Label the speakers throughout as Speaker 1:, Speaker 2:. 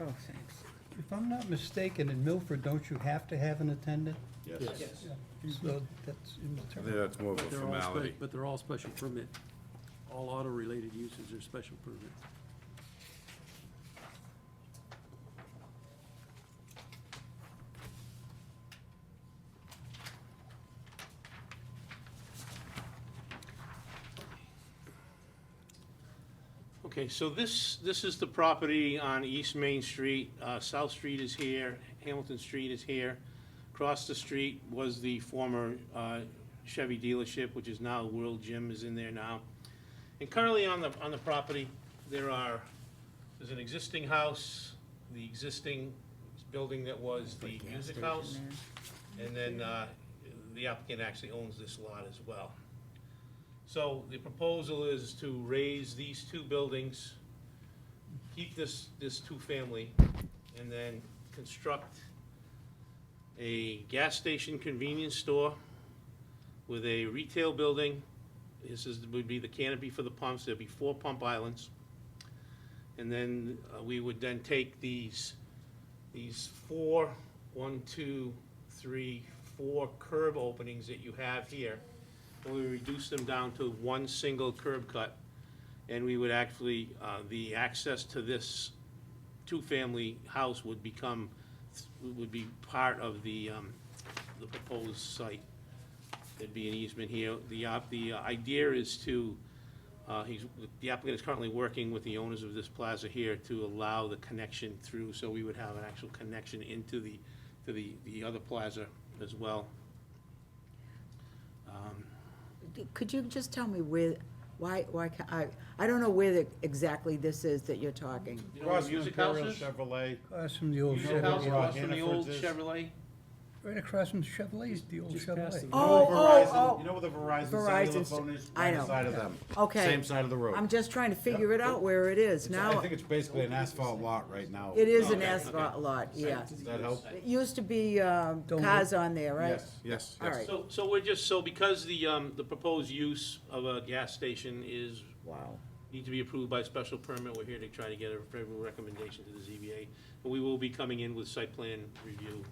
Speaker 1: Oh, thanks.
Speaker 2: If I'm not mistaken, in Milford, don't you have to have an attendant?
Speaker 3: Yes.
Speaker 2: So that's in the
Speaker 3: I
Speaker 2: term.
Speaker 3: think that's more of a
Speaker 4: But they're all spe-
Speaker 3: formality.
Speaker 4: But they're all special permit. All auto-related uses are special permit.
Speaker 5: Okay, so this, this is the property on East Main Street. Uh, South Street is here, Hamilton Street is here. Across the street was the former uh, Chevy dealership, which is now World Gym is in there now. And currently on the, on the property, there are, there's an existing house, the existing building that was the music house. And then uh, the applicant actually owns this lot as well. So the proposal is to raise these two buildings, keep this, this two-family, and then construct a gas station convenience store with a retail building. This is, would be the canopy for the pumps, there'd be four pump islands. And then uh, we would then take these, these four, one, two, three, four curb openings that you have here, and we reduce them down to one single curb cut. And we would actually, uh, the access to this two-family house would become, would be part of the, um, the proposed site. There'd be an easement here. The, op- the idea is to, uh, he's, the applicant is currently working with the owners of this plaza here to allow the connection through, so we would have an actual connection into the, to the, the other plaza as well. Um,
Speaker 1: Could you just tell me where, why, why, ca- I, I don't know where the- exactly this is that you're talking.
Speaker 5: You know where
Speaker 6: Across
Speaker 5: the
Speaker 6: from
Speaker 5: music
Speaker 6: Imperial
Speaker 5: houses?
Speaker 6: Chevrolet,
Speaker 2: Across from the old
Speaker 5: Music house
Speaker 2: Chevrolet,
Speaker 6: Chevrolet.
Speaker 5: across from the old
Speaker 6: Hannaford's is-
Speaker 5: Chevrolet?
Speaker 2: right across from Chevrolet's, the old
Speaker 4: Just past
Speaker 2: Chevrolet.
Speaker 4: the-
Speaker 1: Oh,
Speaker 6: Verizon-
Speaker 1: oh,
Speaker 6: You
Speaker 1: oh,
Speaker 6: know where the Verizon cellular
Speaker 1: Verizon's-
Speaker 6: phone is?
Speaker 1: I
Speaker 6: Right on the
Speaker 1: know.
Speaker 6: Side of them.
Speaker 1: Okay.
Speaker 6: Same side of the road.
Speaker 1: I'm just trying to figure it out where it is
Speaker 6: It's- I
Speaker 1: now.
Speaker 6: think it's basically an asphalt lot right now.
Speaker 1: It is an
Speaker 5: Okay,
Speaker 1: asphalt lot, yeah.
Speaker 6: Does that help?
Speaker 1: It used to be, um,
Speaker 2: Don't
Speaker 1: cars on there, right?
Speaker 6: Yes, yes,
Speaker 1: All
Speaker 6: yes.
Speaker 1: right.
Speaker 5: So, so we're just, so because the, um, the proposed use of a gas station is,
Speaker 1: Wow.
Speaker 5: need to be approved by special permit, we're here to try to get a favorable recommendation to the ZBA. But we will be coming in with site plan review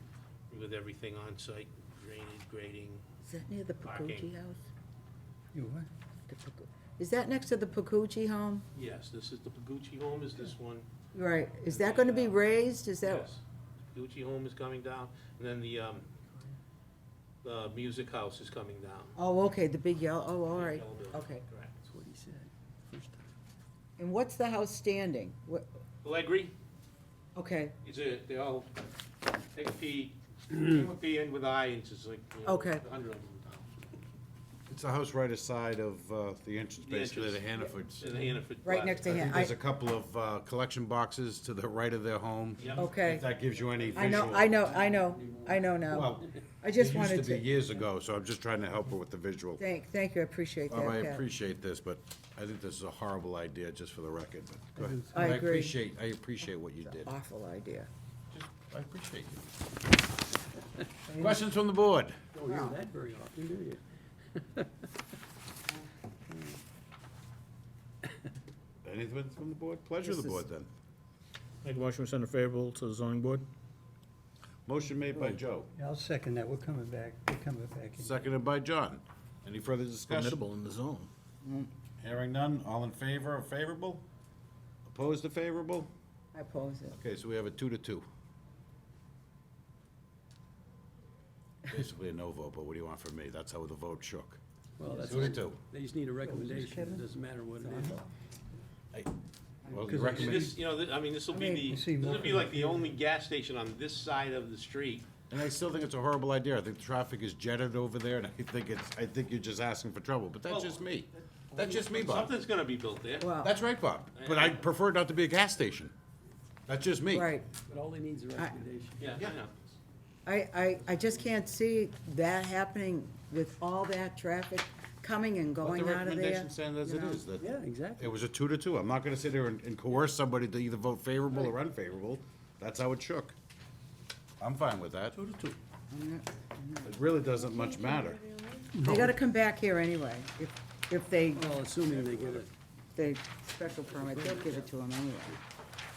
Speaker 5: with everything on site, drainage, grading.
Speaker 1: Is that near the Pacucci
Speaker 5: Parking.
Speaker 1: house?
Speaker 2: You what?
Speaker 1: The Pacu- Is that next to the Pacucci home?
Speaker 5: Yes, this is the Pagucci home, is this one?
Speaker 1: Right, is that gonna be raised, is that?
Speaker 5: Yes. Pagucci home is coming down, and then the, um, the music house is coming down.
Speaker 1: Oh, okay, the big yellow, oh, all right,
Speaker 5: Yellow building,
Speaker 1: okay.
Speaker 5: Correct.
Speaker 4: That's what he said first time.
Speaker 1: And what's the house standing? What,
Speaker 5: Allegri,
Speaker 1: okay,
Speaker 5: It's a, they all, take a P, P in with I, it's just like, you know,
Speaker 1: Okay.
Speaker 5: a hundred of them.
Speaker 6: It's the house right aside of uh, the entrance,
Speaker 5: The
Speaker 6: basically, to
Speaker 5: entrance.
Speaker 6: Hannaford's.
Speaker 5: In the Hannaford.
Speaker 1: right
Speaker 5: Plaza.
Speaker 1: next
Speaker 6: I
Speaker 1: to him,
Speaker 6: think
Speaker 1: I,
Speaker 6: there's a couple of uh, collection boxes to the right of their home.
Speaker 5: Yep.
Speaker 1: okay.
Speaker 6: If that gives you any
Speaker 1: I
Speaker 6: visual.
Speaker 1: know, I know, I know, I know now.
Speaker 6: Well,
Speaker 1: I
Speaker 6: it
Speaker 1: just
Speaker 6: used to
Speaker 1: wanted to,
Speaker 6: be years ago, so I'm just trying to help her with the visual.
Speaker 1: thank, thank you, I appreciate that,
Speaker 6: Bob, I
Speaker 1: Pat.
Speaker 6: appreciate this, but I think this is a horrible idea, just for the record, but go ahead.
Speaker 1: I agree.
Speaker 6: appreciate, I appreciate what you did.
Speaker 1: Awful idea.
Speaker 6: Just- I appreciate you. Questions from the board?
Speaker 4: Don't hear that very often, do you?
Speaker 6: Anything from the board? Pleasure of the board, then.
Speaker 7: Make a motion, we send a favorable to the zoning board?
Speaker 6: Motion made by Joe,
Speaker 2: Yeah, I'll second that, we're coming back, we're coming back. in.
Speaker 6: seconded by John. Any further discussion?
Speaker 7: Formidable in the zone.
Speaker 6: Mm. Hearing none, all in favor of favorable? Opposed to favorable?
Speaker 1: I oppose it.
Speaker 6: Okay, so we have a two to two. Basically a no vote, but what do you want from me? That's how the vote shook.
Speaker 4: Well, that's,
Speaker 6: Two to two.
Speaker 4: they just need a recommendation, it doesn't matter what it is.
Speaker 6: Well,
Speaker 2: Because I-
Speaker 6: you
Speaker 5: So
Speaker 6: recommend,
Speaker 5: This, you know, th- I mean, this will
Speaker 1: I
Speaker 5: be
Speaker 1: mean,
Speaker 5: the,
Speaker 2: you
Speaker 5: this
Speaker 2: see
Speaker 5: will
Speaker 2: more-
Speaker 5: be like the only gas station on this side of the street.
Speaker 6: and I still think it's a horrible idea. I think the traffic is jetted over there, and I think it's, I think you're just asking for trouble, but that's just me. That's just me, Bob.
Speaker 5: Something's gonna be built there.
Speaker 1: Well,
Speaker 6: That's right, Bob, but I prefer it not to be a gas station. That's just me.
Speaker 1: right,
Speaker 4: But all they need is a recommendation.
Speaker 5: Yeah, I know.
Speaker 1: I, I, I just can't see that happening with all that traffic coming and
Speaker 6: Let the
Speaker 1: going out of there.
Speaker 6: recommendation stand as
Speaker 1: you
Speaker 6: it
Speaker 1: know.
Speaker 6: is, that
Speaker 4: Yeah, exactly.
Speaker 6: it was a two to two. I'm not gonna sit here and and coerce somebody to either vote favorable or unfavorable. That's how it shook. I'm fine with that. Two to two. It really doesn't much matter.
Speaker 1: Mm-hmm. They gotta come back here anyway, if, if they,
Speaker 4: Well, assuming they get it.
Speaker 1: they special permit, they'll give it to them anyway.